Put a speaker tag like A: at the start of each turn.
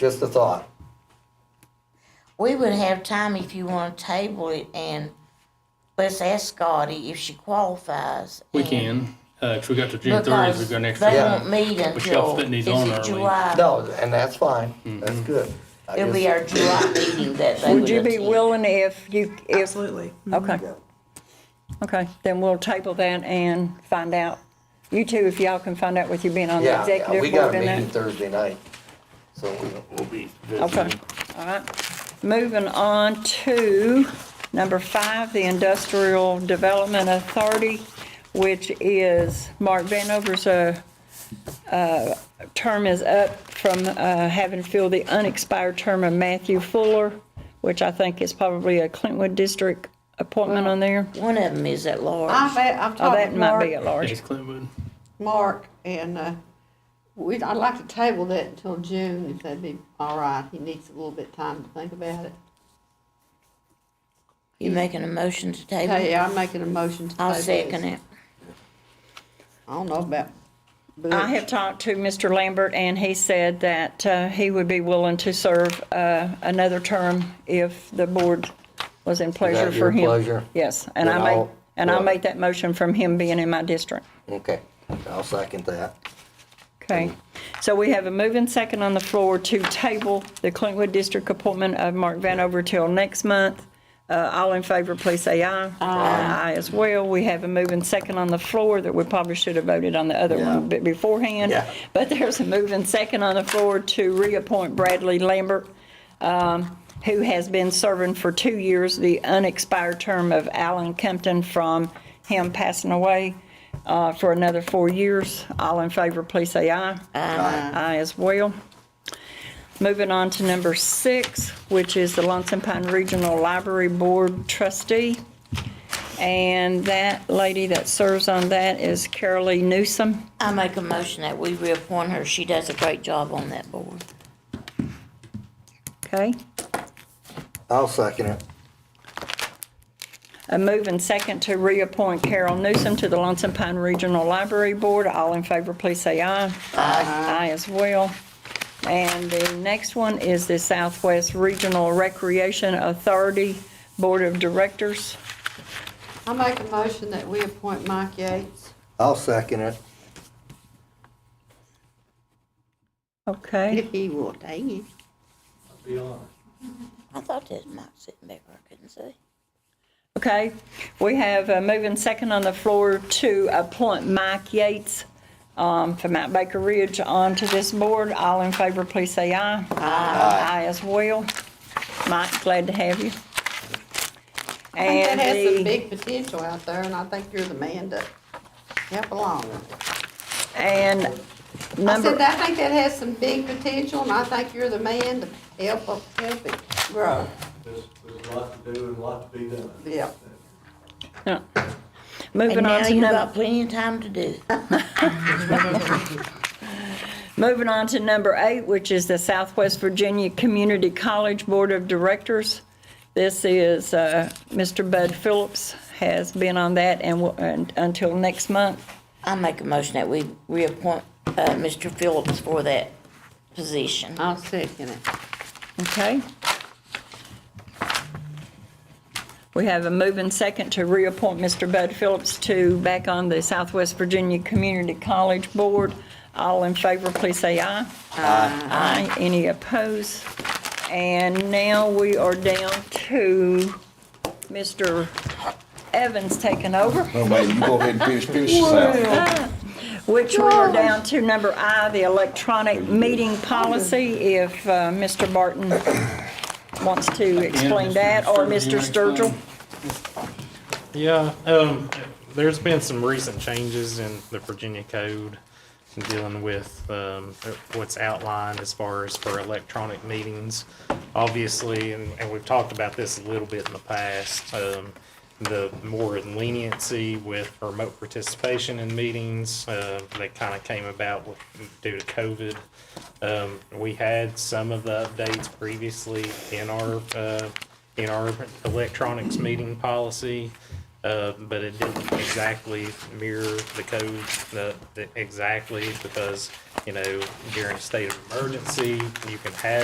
A: Just a thought.
B: We would have time if you want to table it and let's ask Scotty if she qualifies.
C: We
B: and-
C: can, uh, 'cause we got to June thirtieth,
B: because
C: we've got an extra.
B: They
C: week.
A: Yeah.
B: won't meet
C: We shall
B: until,
C: fit these
B: is
C: on
B: it
C: early.
B: July?
A: No, and that's fine. That's good. I
B: It'll be
A: just-
B: our July meeting that they would
D: Would you be
B: attend.
D: willing if you, if,
E: Absolutely.
D: okay, okay, then we'll table that and find out. You two, if y'all can find out with you being on the
A: Yeah, yeah, we
D: executive
A: got
D: board
A: a meeting
D: and that.
A: Thursday night, so we-
F: We'll be
D: Okay,
F: visiting.
D: all right. Moving on to number five, the Industrial Development Authority, which is Mark Vanover's, uh, uh, term is up from, uh, having filled the unexpired term of Matthew Fuller, which I think is probably a Clintwood District appointment on there.
B: One of them is at large.
E: I've, I've
D: Oh,
E: talked
D: that
E: to
D: might be
E: Mark,
D: at large.
C: Thanks, Clintwood.
E: Mark, and, uh, we, I'd like to table that until June, if that'd be all right. He needs a little bit of time to think about it.
B: You making a motion to table?
E: Hey,
B: it?
E: I'm making a motion to table
B: I'll
E: this.
B: second it.
E: I don't know about.
D: I have talked to Mr. Lambert, and he said that uh, he would be willing to serve uh, another term if the board was in pleasure
A: that
D: for
A: your
D: him.
A: pleasure?
D: Yes, and I
A: Then
D: made,
A: I'll-
D: and I
A: well-
D: made that motion from him being in my district.
A: okay, I'll second that.
D: Okay, so we have a move and second on the floor to table the Clintwood District appointment of Mark Vanover till next month. Uh, All in favor, please say aye. Aye. as well. We have a move and second on the floor that we probably should have voted on the other
A: Yeah.
D: one bit beforehand.
A: Yeah.
D: But there's a move and second on the floor to reappoint Bradley Lambert, um, who has been serving for two years the unexpired term of Alan Compton from him passing away uh, for another four years. All in favor, please say aye. Aye. Aye as well. Moving on to number six, which is the Lonesome Pine Regional Library Board trustee. And that lady that serves on that is Carolee Newsom.
B: I make a motion that we reappoint her. She does a great job on that board.
D: Okay?
A: I'll second it.
D: A move and second to reappoint Carol Newsom to the Lonesome Pine Regional Library Board. All in favor, please say aye. Aye. Aye as well. And the next one is the Southwest Regional Recreation Authority Board of Directors.
E: I make a motion that we appoint Mike Yates.
A: I'll second it.
D: Okay,
E: If he will, dang it.
B: I thought that Mike sitting back where I couldn't see.
D: okay. We have a move and second on the floor to appoint Mike Yates um, from Mount Baker Ridge onto this board. All in favor, please say aye. Aye. Aye as well. Mike, glad to have you.
E: I think
D: And
E: that has some
D: the,
E: big potential out there, and I think you're the man to help along with it.
D: and
E: I said,
D: number,
E: I think that has some big potential, and I think you're the man to help, help it grow.
G: There's, there's a lot to do and a lot to be done.
E: Yeah.
D: no.
B: And
D: moving on
B: now
D: to
B: you've
D: number.
B: got plenty of time to do. it.
D: Moving on to number eight, which is the Southwest Virginia Community College Board of Directors. This is, uh, Mr. Bud Phillips has been on that and will, and until next month.
B: I make a motion that we reappoint, uh, Mr. Phillips for that position.
E: I'll second it.
D: Okay. We have a move and second to reappoint Mr. Bud Phillips to back on the Southwest Virginia Community College Board. All in favor, please say aye. Aye. Aye. Any opposed? And now we are down to Mr. Evans taking over.
H: No, man, Oh, you go ahead and finish, finish this out.
D: Which we are down to number I, the electronic meeting policy, if uh, Mr. Barton wants to explain that, or Mr. Sturgill.
I: Yeah, um, there's been some recent changes in the Virginia code dealing with, um, what's outlined as far as for electronic meetings. Obviously, and, and we've talked about this a little bit in the past, um, the more leniency with remote participation in meetings, uh, that kind of came about with, due to COVID. Um, we had some of the updates previously in our, uh, in our electronics meeting policy, uh, but it didn't exactly mirror the code, uh, the- exactly, because, you know, during a state of emergency, you can have